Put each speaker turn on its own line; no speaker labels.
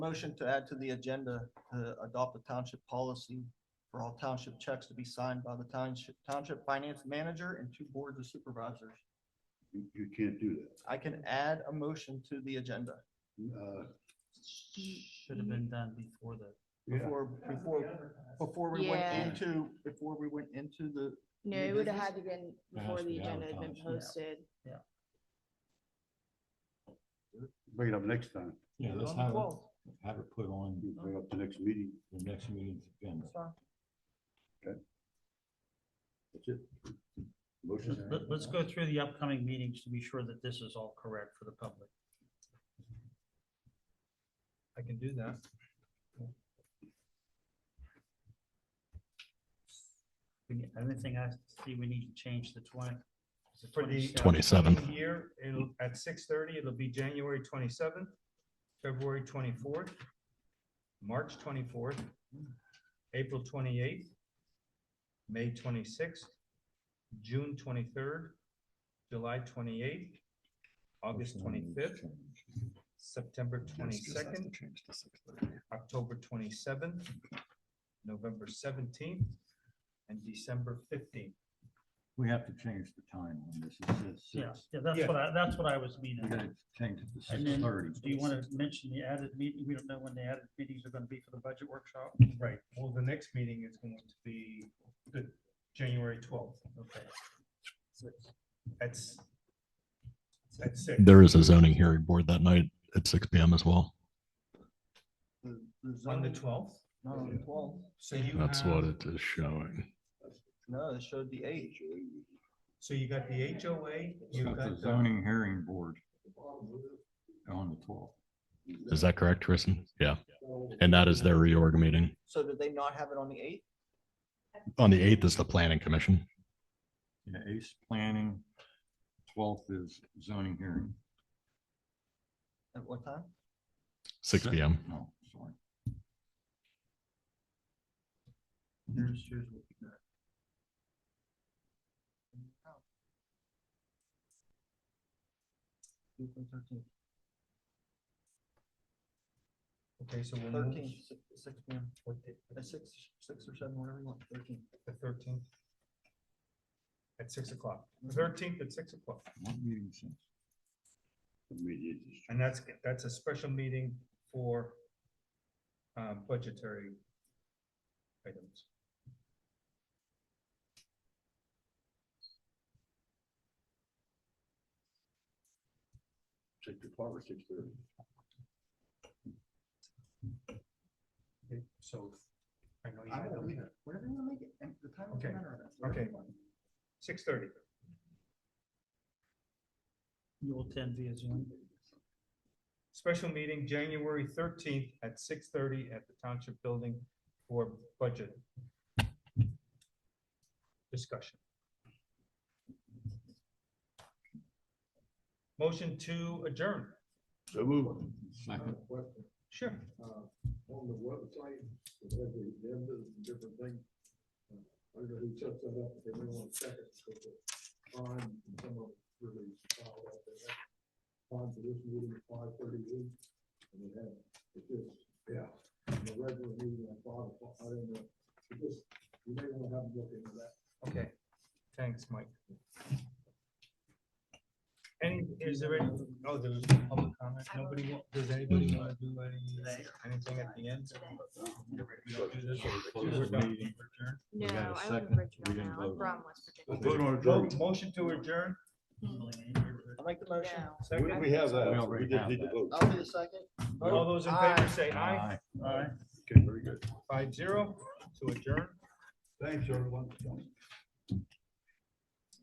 Motion to add to the agenda to adopt a township policy for all township checks to be signed by the township, township finance manager and two boards of supervisors.
You, you can't do that.
I can add a motion to the agenda
Uh,
Should have been done before the.
yeah,
before, before, before we went
Yeah.
into, before we went into the,
No,
New
it would
business?
have had to been
It has
before
to
the
be
agenda had been
advertised, yeah.
posted.
bring it up next time.
Yeah, let's
on the
have it,
12th.
have it put on
You Bring it up the next meeting.
the next meeting's agenda.
That's fine.
That's it. Motion.
Let, let's go through the upcoming meetings to be sure that this is all correct for the public.
I can do that.
We need- I don't think I see we need to change the twenty. is it
For the- uh,
27?
27th.
Coming Here, it'll, at six thirty, it'll be January twenty-seventh, February twenty-fourth, March twenty-fourth, April twenty-eighth, May twenty-sixth, June twenty-third, July twenty-eighth, August twenty-fifth, September twenty-second, October twenty-seventh, November seventeenth, and December fifteenth.
We have to change the time on this. It says
Yeah,
six.
yeah, that's what I, that's what I was meaning.
We gotta change it to
And
six
then,
thirty.
do you want to mention the added meeting? We don't know when the added meetings are going to be for the budget workshop.
Right, well, the next meeting is going to be the January twelfth. Okay. That's. At six.
There is a zoning hearing board that night at six PM as well.
The, the
On the
zoning,
twelfth,
no, on the twelve,
so you
That's what
have,
it is showing.
no, it showed the eight.
so you got the HOA,
It's
you've
got
uh,
the
got the,
zoning hearing board on the twelfth.
Is that correct, Tristan? Yeah. And that is their reorg meeting.
So did they not have it on the eight?
On the eighth is the planning commission.
Yeah, ace planning, twelfth is zoning hearing.
At what time?
Six PM.
No, sorry.
Here's, here's what we got. April 13th.
okay, so we'll move
Thirteen, six, six P M,
what day-
Uh, six, six or seven, whatever you want, thirteen.
the thirteenth. At six o'clock, thirteenth at six o'clock,
What meeting since?
Immediate.
and that's, that's a special meeting for. Uh, budgetary. Items.
Six o'clock or six thirty?
Okay, So. I know you
I
had
will
them.
leave it, whatever you want to make it, and the time doesn't
Okay.
matter. that's whatever
Okay.
you want.
Six thirty.
You will attend via Zoom.
Special meeting, January thirteenth at six thirty at the Township Building for budget. Discussion. Motion to adjourn.
So move.
Second.
Sure.
Uh, On the website, it has the agenda, different thing. Uh, I don't know who sets that up, if they want to check it, but the time, some of really follow up. They have Time for this meeting at five thirty-eight, and they have, it just, yeah, the regular meeting at five o'clock, I don't know. It just, you may want to have a look into that.
Okay, thanks, Mike. Any, is there any, oh, there was no public comment, nobody, wa- does anybody want to do any, anything at the end? We don't do this? We're done. We're adjourned.
No,
got a
I live
second.
in
We
Virginia
didn't
now. I'm
vote.
from West
We'll
Virginia.
vote on
Vote, motion to adjourn.
I'll make the motion.
No.
Second.
We have
We
that, we
already
just
have
need to
that.
vote.
I'll be the second.
All those in
Aye.
favor say aye.
Aye.
Okay, very good.
Five zero to adjourn.
Thanks, everyone.